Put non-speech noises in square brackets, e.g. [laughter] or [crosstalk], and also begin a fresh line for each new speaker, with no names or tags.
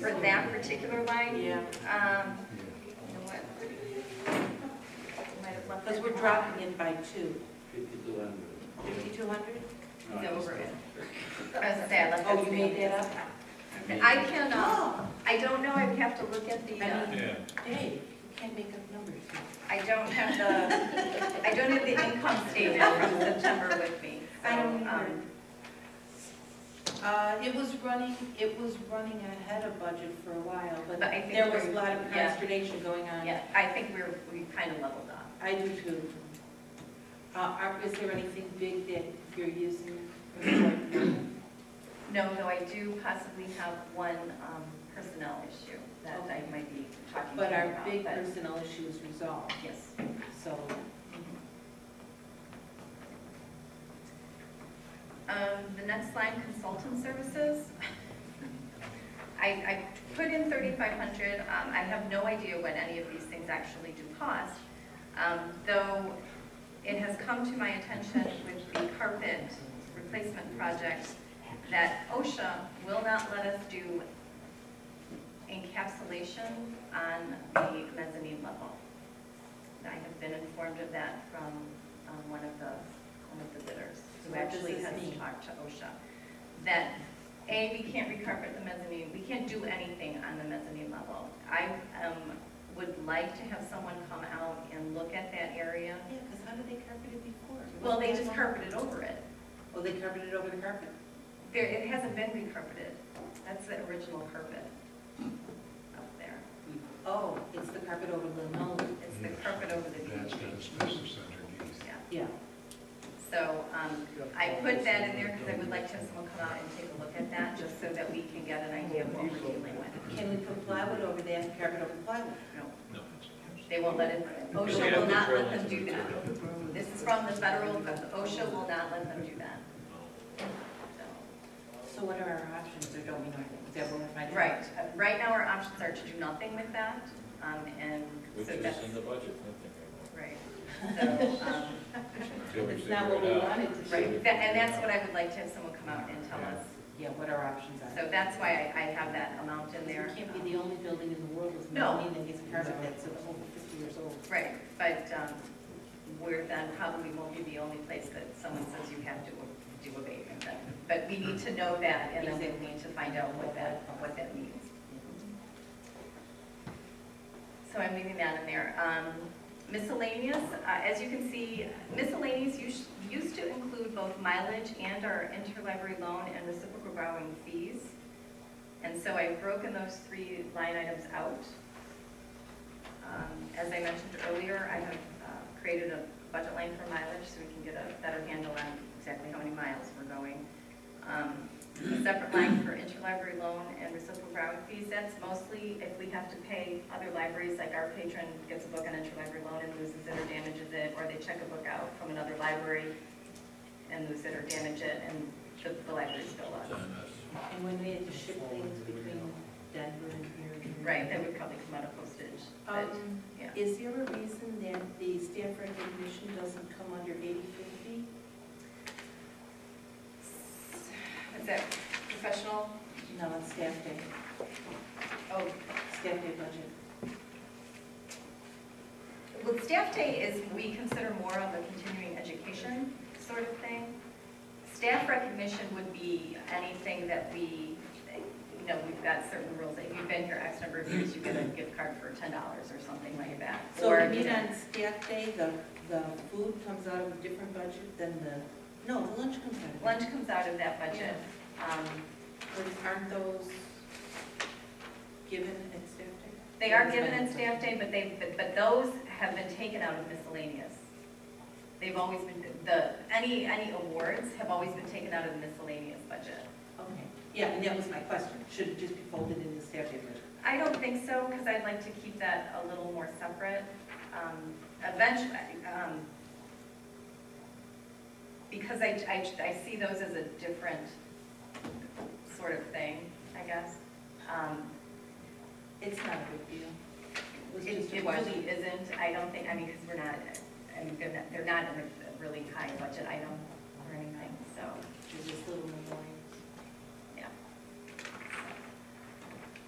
for that particular line.
Yeah,
Um, you know what? Might have left
because
that
we're
off.
dropping it by two,
Fifty-two hundred.
fifty-two hundred?
It's over it. I was gonna say, I left
Oh,
that
you made
blank.
that up?
I can, uh,
Oh,
I don't know, I'd have to look at the,
I
uh,
mean,
Yeah.
Dave, you can't make up numbers.
I don't have
Uh,
the, I don't have the income statement from September with me. so,
I don't
um,
remember. Uh, it was running, it was running ahead of budget for a while, but
But I think
there was a
we're-
lot of
yeah.
consternation going on.
Yeah, I think we're, we kind of leveled off.
I do too. Uh, are- is there anything big that you're using? or like,
No, no, I do possibly have one um, personnel issue that I might be talking to you
But our
about.
big
but-
personnel issue is resolved,
Yes.
so.
Um, The next line, consultant services. I, I put in 3,500. Um, I have no idea what any of these things actually do cost. Um, Though it has come to my attention with the carpet replacement project that OSHA will not let us do encapsulation on the mezzanine level. I have been informed of that from um, one of the, one of the bidders, who
What does
actually
this
has
mean?
talked to OSHA, that, A, we can't recarpet the mezzanine, we can't do anything on the mezzanine level. I um, would like to have someone come out and look at that area.
Yeah, because how did they carpet it before?
Well, they just carpeted over it.
Oh, they carpeted over the carpet.
There, it hasn't been recarpeted. That's the original carpet up there.
Oh, it's the carpet over linoleum.
It's the carpet over the
That's got
DG.
asbestos underneath.
Yeah.
Yeah.
So um, I put that in there because I would like to have someone come out and take a look at that, just so that we can get an idea of what we're dealing with.
Can we put plywood over there, carpet over plywood?
No,
No.
They won't let it,
We
OSHA
have
will
to
not let
drill
them
into
do
the
that.
ground.
This is from the federal, but OSHA will not let them do that. So,
So what are our options, or don't we know anything? Is that what we're finding?
Right, Uh, right now our options are to do nothing with that, um, and
Which
so
is
that's,
in the budget, nothing.
right. So, um,
[laughs] It's not what we wanted to do.
Right, that- and that's what I would like to have someone come out and tell us.
Yeah, what our options are.
So that's why I, I have that amount in there.
It can't be the only building in the world with
No.
mezzanine that gets carpet that's over 50 years old.
Right, but um, we're then probably won't be the only place that someone says you have to do abatement then. But we need to know that, and then we need to find out what that, what that means. So I'm leaving that in there. Um, Miscellaneous, uh, as you can see, miscellaneous us- used to include both mileage and our interlibrary loan and reciprocal borrowing fees. And so I've broken those three line items out. Um, As I mentioned earlier, I have uh, created a budget line for mileage so we can get a better handle on exactly how many miles we're going. Um, A separate line for interlibrary loan and reciprocal borrowing fees, that's mostly if we have to pay other libraries, like our patron gets a book on interlibrary loan and loses it or damages it, or they check a book out from another library and lose it or damage it, and the- the libraries fill up.
And when we had to ship things between Denver and here and here.
Right, that would probably come out of postage. but-
Um,
yeah.
Is there a reason that the staff recognition doesn't come under 8050?
Is that professional?
No, it's staff day,
Oh,
staff day budget.
Well, staff day is, we consider more of a continuing education sort of thing. Staff recognition would be anything that we, you know, we've got certain rules, if you've been here X number of years, you get a gift card for ten dollars or something like that.
So
Or,
you mean
know,
on staff day, the, the food comes out of a different budget than the, no, the lunch comes out of.
Lunch comes out of that budget. Um,
But aren't those given at staff day?
They are given at staff day, but they, but- but those have been taken out of miscellaneous. They've always been, the, any, any awards have always been taken out of the miscellaneous budget.
Okay, yeah, and that was my question, should it just be folded in the staff day budget?
I don't think so, because I'd like to keep that a little more separate. Um, Eventually, um, because I, I, I see those as a different sort of thing, I guess. Um,
It's not a big deal. It was
It
just a
it
question.
really isn't, I don't think, I mean, because we're not, I mean, they're not, they're not in a really high budget item or anything, so.
Just a little memorial.